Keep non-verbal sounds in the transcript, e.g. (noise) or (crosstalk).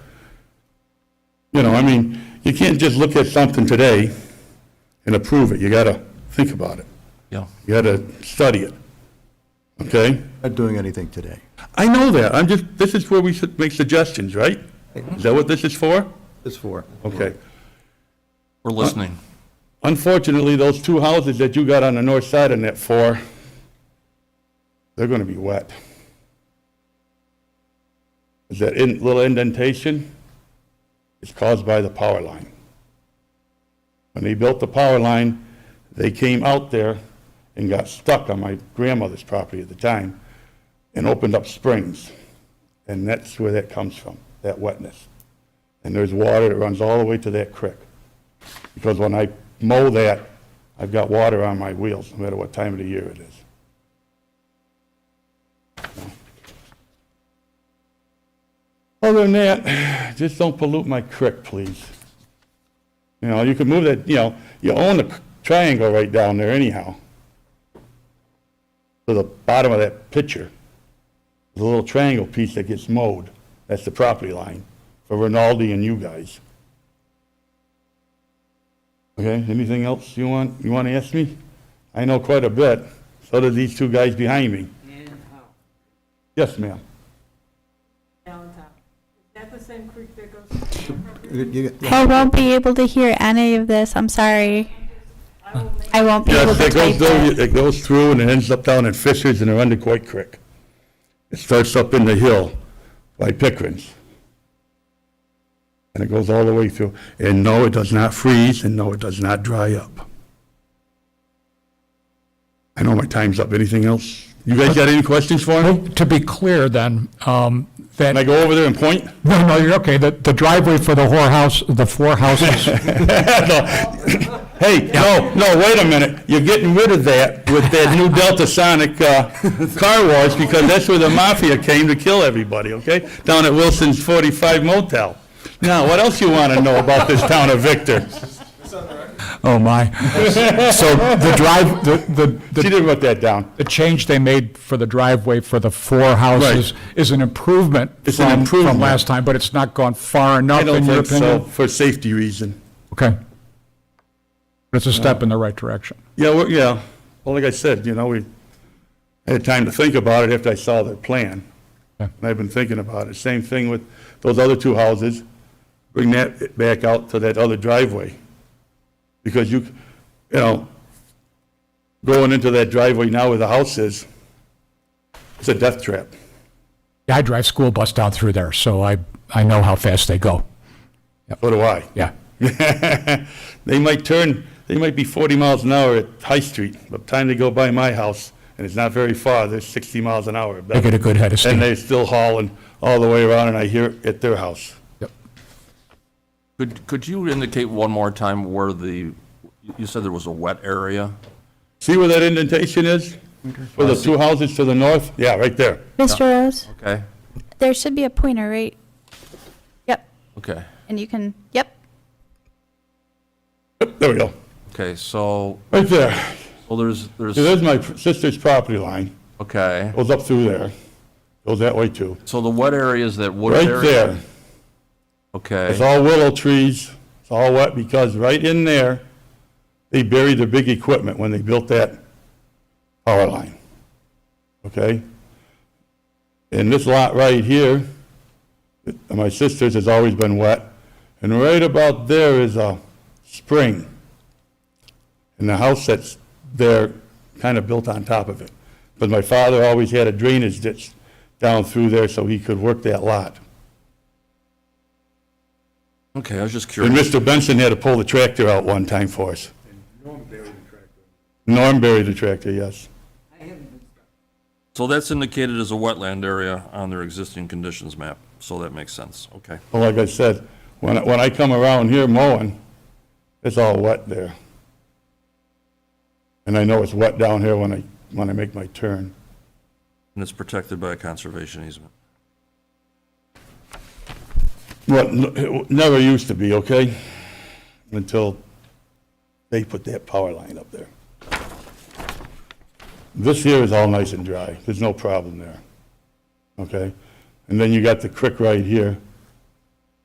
You know, I mean, you can't just look at something today and approve it. You gotta think about it. Yeah. You gotta study it, okay? Not doing anything today. I know that, I'm just, this is where we should make suggestions, right? Is that what this is for? It's four. Okay. We're listening. Unfortunately, those two houses that you got on the north side of net four, they're gonna be wet. Is that in, little indentation? It's caused by the power line. When they built the power line, they came out there and got stuck on my grandmother's property at the time and opened up springs. And that's where that comes from, that wetness. And there's water that runs all the way to that creek because when I mow that, I've got water on my wheels, no matter what time of the year it is. Other than that, just don't pollute my creek, please. You know, you could move that, you know, you own the triangle right down there anyhow. To the bottom of that picture, the little triangle piece that gets mowed, that's the property line for Rinaldi and you guys. Okay, anything else you want, you want to ask me? I know quite a bit, so do these two guys behind me. And out, Yes, ma'am. downtown. Is that the same creek that goes? to the property? I won't be able to hear any of this. I'm sorry. I will make I won't be able Yes, to it goes type it. through, it goes through and it ends up down in Fishers and around the Coit Creek. It starts up in the hill by Pickering's. And it goes all the way through. And no, it does not freeze, and no, it does not dry up. I know my time's up. Anything else? You guys got any questions for me? To be clear then, um, Can I that, go over there and point? no, no, you're okay, the the driveway for the whorehouse, the four houses, (laughs) Hey, no, no, wait a minute. You're getting rid of that with that new Delta Sonic uh, car wash because that's where the mafia came to kill everybody, okay? Down at Wilson's 45 Motel. Now, what else you want to know about this town of Victor? oh my. So the drive, the, the- She the, didn't put that down. the change they made for the driveway for the four houses is an improvement It's an from, improvement. from last time, but it's not gone far I enough don't in your think so, opinion? for safety reason. Okay. But it's a step in the right direction. Yeah, well, yeah. Well, like I said, you know, we had time to think about it after I saw their plan. Yeah. And I've been thinking about it. Same thing with those other two houses. Bring that back out to that other driveway. Because you, you know, going into that driveway now where the house is, it's a death trap. Yeah, I drive school bus down through there, so I, I know how fast they go. So do I. Yeah. (laughs) They might turn, they might be 40 miles an hour at High Street. By the time they go by my house, and it's not very far, they're 60 miles an hour. They get a good head of steam. And they're still hauling all the way around, and I hear it at their house. Yep. Could, could you indicate one more time where the, you said there was a wet area? See where that indentation is? For the two houses to the north? Yeah, right there. Mr. Rose, Okay, there should be a pointer, right? Yep, okay, and you can, yep. Yep, There we go. okay, so, Right there. well, there's, there's, See, There's my sister's property line. okay. Goes up through there. Goes that way too. So the wet area is that wooded Right area? there. It's Okay, all willow trees. It's all wet because right in there, they buried their big equipment when they built that power line. Okay? And this lot right here, my sister's has always been wet. And right about there is a spring. And the house that's there kind of built on top of it. But my father always had a drainage ditch down through there so he could work that lot. okay, I was just And curious. Mr. Benson had to pull the tractor out one time for us. Norm buried the tractor. Norm buried the tractor, yes. So that's indicated as a wetland area on their existing conditions map, so that makes sense, okay. Well, like I said, when, I- when I come around here mowing, it's all wet there. And I know it's wet down here when I, when I make my turn. And it's protected by a conservation easement. What, n- it never used to be, okay? Until they put that power line up there. This here is all nice and dry, there's no problem there, okay? And then you got the creek right here